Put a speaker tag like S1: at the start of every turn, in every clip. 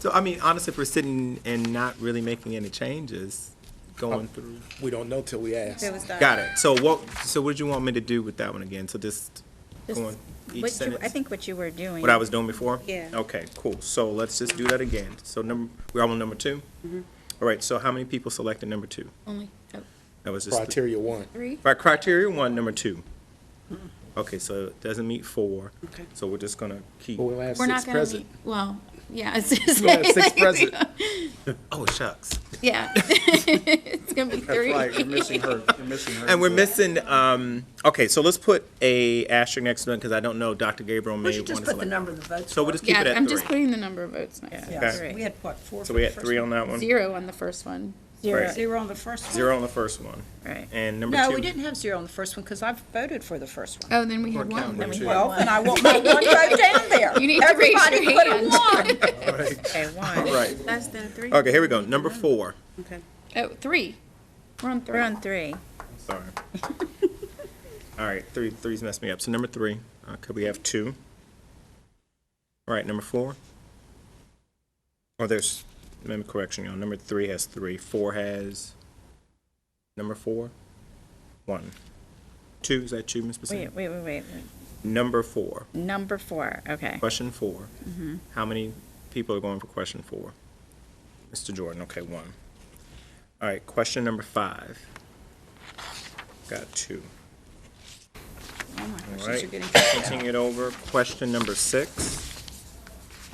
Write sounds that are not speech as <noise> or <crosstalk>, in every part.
S1: So, I mean, honestly, if we're sitting and not really making any changes, going
S2: Oh.
S1: through.
S2: We don't know till we ask.
S3: It was done.
S1: Got it. So what, so what did you want me to do with that one again? So just
S3: Just
S1: going each
S3: What you,
S1: sentence?
S3: I think what you were doing.
S1: What I was doing before?
S3: Yeah.
S1: Okay, cool. So let's just do that again. So number, we're on number two?
S3: Mm-hmm.
S1: All right, so how many people selected number two?
S4: Only, oh,
S1: That was just. the-
S2: Criteria one.
S4: three?
S1: Right, criteria one, number two. Okay, so it doesn't meet four.
S4: Okay.
S1: So we're just gonna keep.
S2: But we'll have
S4: We're
S2: six
S4: not gonna
S2: present.
S4: meet, well, yeah. <laughs>
S1: <laughs>
S4: it's just-
S2: We'll have six present.
S1: Oh, shucks.
S4: <laughs> Yeah. <laughs> It's gonna be
S5: That's
S4: three.
S5: right, you're missing her, you're missing her.
S1: And we're
S5: So-
S1: missing, um, okay, so let's put a asterisk next to it, because I don't know, Dr. Gabriel may
S6: We
S1: want to
S6: should just
S1: select.
S6: put the number of the votes.
S1: So we'll just keep it
S4: Yeah,
S1: at
S4: I'm just
S1: three.
S4: putting the number of votes next.
S6: Yeah,
S1: Okay.
S6: so We had, what, four? for
S1: So we
S6: the
S1: had
S6: first
S1: three
S6: one?
S1: on that one,
S4: Zero on the first one.
S1: Right.
S6: Zero on the first one?
S1: zero on the first one.
S3: Right.
S1: And number two.
S6: No, we didn't have zero on the first one, because I voted for the first one.
S4: Oh, then we had
S1: We're counting
S4: one.
S1: two.
S6: Well, then I want
S3: <laughs>
S6: my one vote down there.
S4: You need to raise your
S6: Everybody put in
S4: hand.
S6: one.
S3: Okay, one.
S1: Right,
S7: Less than three?
S1: okay, here we go, number four.
S4: <laughs> Oh, three. We're on three.
S3: We're on three.
S1: Sorry. <laughs> All right, three, three's messed me up. So number three, okay, we have two. All right, number four. Oh, there's, let me correction, y'all. Number three has three, four has, number four, one. Two, is that two, Ms. Bassett?
S3: Wait, wait, wait, wait.
S1: Number four,
S3: Number four, okay.
S1: question four.
S3: Mm-hmm.
S1: How many people are going for question four? Mr. Jordan, okay, one. All right, question number five. Got two.
S6: Oh my
S1: All
S6: gosh, these are
S1: right,
S6: getting-
S1: switching it over, question number six.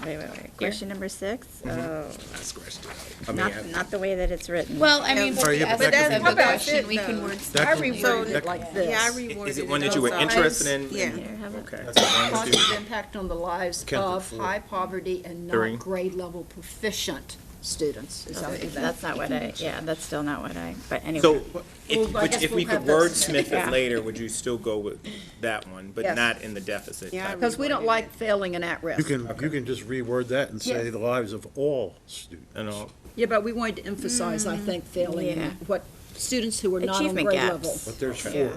S3: Wait, wait, wait. Question number six?
S1: Mm-hmm.
S3: Oh,
S2: I scratched it out. I mean,
S3: not,
S2: I-
S3: not the way that it's written.
S4: Well, I mean,
S7: Sorry,
S4: the
S5: yeah, but
S4: essence
S5: that-
S4: of
S5: how
S4: the
S7: about
S4: question,
S7: it,
S4: we can
S7: though?
S4: word.
S5: That
S6: I
S5: can-
S6: reworded it like this.
S7: Yeah, I reworded it.
S1: Is it one that you were
S7: also.
S1: interested in?
S7: Yeah.
S1: Okay.
S8: positive impact on the lives
S2: Count to
S8: of
S2: four.
S8: high poverty and
S1: Three.
S8: not grade level proficient students. Is that- is that-
S3: That's not what I, yeah, that's still not what I, but anyway.
S1: So, <laughs> if,
S8: Well, I
S1: which-
S8: guess
S1: if we
S8: we'll
S1: could
S8: have those.
S1: wordsmith it
S3: Yeah.
S1: later, would you still go with that one, but
S8: Yes.
S1: not in the deficit?
S7: Yeah, I
S1: type?
S8: Because we don't like failing and
S5: You
S8: at-risk.
S5: can, you can just reword that and say
S8: Yes.
S5: the lives of all students.
S1: And uh, all,
S8: Yeah, but we wanted to emphasize, I think, failing,
S3: yeah.
S8: what, students who were not on
S3: Achievement
S8: grade
S3: gaps.
S8: level.
S5: But there's four.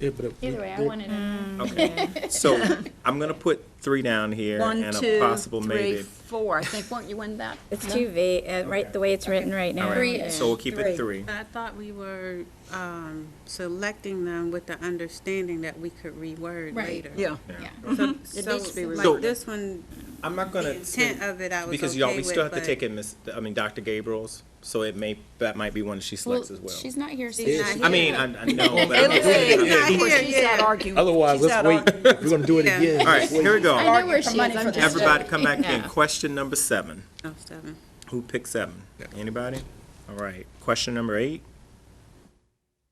S2: Yeah, but it-
S4: Either way, I
S2: they-
S4: wanted.
S1: okay, so, I'm gonna put three down here
S8: One,
S1: and a
S8: two,
S1: possible maybe.
S8: three, four. I think, weren't you in that?
S3: It's too vague, uh, right, the way it's written right now.
S1: All right, so we'll keep it
S8: Three.
S1: three.
S7: I thought we were um, selecting them with the understanding that we could reword
S4: Right.
S7: later.
S8: Yeah.
S7: So,
S8: needs to be
S7: so,
S1: So-
S7: like this one,
S1: I'm not gonna.
S7: the intent of it, I was okay with.
S1: Because y'all, we still have to
S7: but
S1: take it, Miss, I mean, Dr. Gabriel's, so it may, that might be one she
S4: Well,
S1: selects as well.
S4: she's not here, so.
S7: She's
S4: she's
S7: not
S1: I
S7: here.
S1: mean, I, I know, but. I'm-
S7: It's not
S8: Of course,
S7: here
S8: she's
S7: yet.
S8: out arguing.
S2: Otherwise,
S8: She's out
S2: let's wait. If We're gonna do it
S7: Yeah.
S2: again.
S1: All right,
S2: just wait.
S1: here we go.
S4: I know where she is,
S8: money for
S4: I'm just.
S1: Everybody
S4: joking.
S1: come back in.
S3: No.
S1: Question number seven.
S7: Oh, seven.
S1: Who picked seven? Anybody? All right. Question number eight.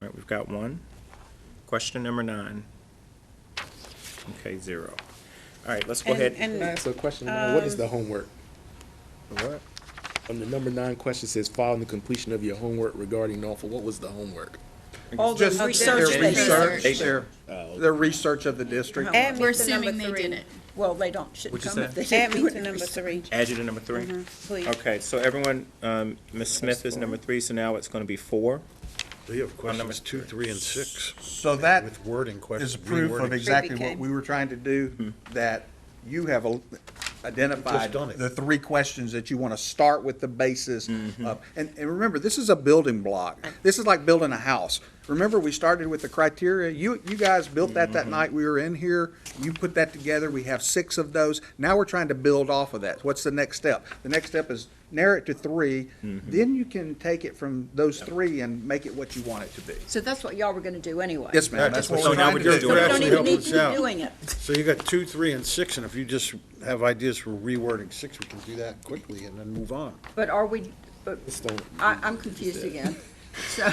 S1: All right, we've got one. Question number nine. Okay, zero. All right, let's go
S7: And-
S1: ahead.
S2: Can I
S7: And
S2: ask a question now? What is
S4: Um,
S2: the homework?
S1: What?
S2: On the number nine question says, following the completion of your homework regarding Norfolk, what was the homework?
S6: All the
S5: Just their
S6: research
S5: Their
S6: they
S5: research,
S6: did.
S5: their, their research of the district.
S7: add
S4: We're
S7: me to number
S4: assuming they did
S7: three.
S4: it.
S6: Well, they don't, shouldn't
S1: What'd you
S6: come if
S1: say?
S6: they
S7: Add
S6: didn't do
S7: me
S6: it.
S7: to number three,
S1: Add you to number three?
S7: Mm-hmm. please.
S1: Okay, so everyone, um, Ms. Smith is number three, so now it's gonna be four.
S9: We have
S1: number
S9: questions two, three, and six.
S5: So that
S9: With wording questions.
S5: is proof of
S9: rewording.
S5: exactly what
S7: became-
S5: we were trying to do, that you have al- identified
S9: Hmm. done it.
S5: the three questions that you want to start with the basis
S9: Mm-hmm.
S5: of. And, and remember, this is a building block. This is like building a house. Remember, we started with the criteria. You, you guys built that
S9: Mm-hmm.
S5: that night we were in here. You put that together. We have six of those. Now we're trying to build off of that. What's the next step? The next step is narrow it to three.
S9: Mm-hmm.
S5: Then you can take it from those three and make it what you want it to be.
S8: So that's what y'all were gonna do anyway.
S5: Yes, ma'am, that's what
S1: So
S5: we're
S1: now
S5: trying
S1: we're
S5: to
S1: just
S5: do.
S8: So we
S1: doing.
S8: don't
S9: actually
S8: even need
S9: helps
S8: you
S9: us out.
S8: doing it.
S9: So you got two, three, and six, and if you just have ideas for rewording six, we can do that quickly and then move on.
S8: But are we, but
S2: Just don't-
S8: I, I'm confused again. So,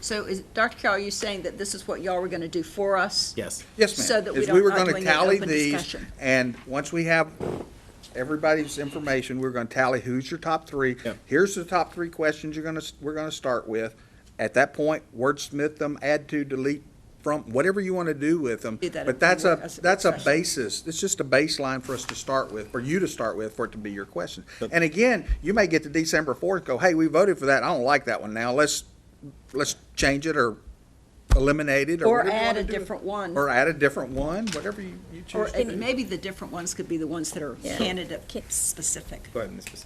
S8: so is, Dr. Carroll, you saying that this is what y'all were gonna do for us?
S1: Yes.
S5: Yes, ma'am.
S8: So that we
S5: Is
S8: don't-
S5: were
S8: not
S5: gonna
S8: doing an
S5: tally
S8: open
S5: these,
S8: discussion.
S5: And once we have everybody's information, we're gonna tally who's your top three.
S1: Yep.
S5: Here's the top three questions you're gonna, s- we're gonna start with. At that point, wordsmith them, add to, delete from, whatever you wanna do with them.
S8: Do that
S5: But
S8: at
S5: that's
S8: work
S5: a,
S8: as a
S5: that's a
S8: work session.
S5: basis, it's just a baseline for us to start with, for you to start with, for it to be your question. And again, you may get to December fourth, go, hey, we voted for that, I don't like that one now, let's, let's change it or eliminate it or
S8: Or
S5: whatever you
S8: add
S5: wanna
S8: a
S5: do.
S8: different one.
S5: Or add a different one, whatever you, you choose
S8: Or
S5: to do.
S8: maybe the different ones could be the ones that are
S3: Yeah.
S8: candidate specific.
S1: Go ahead, Ms. Bassett.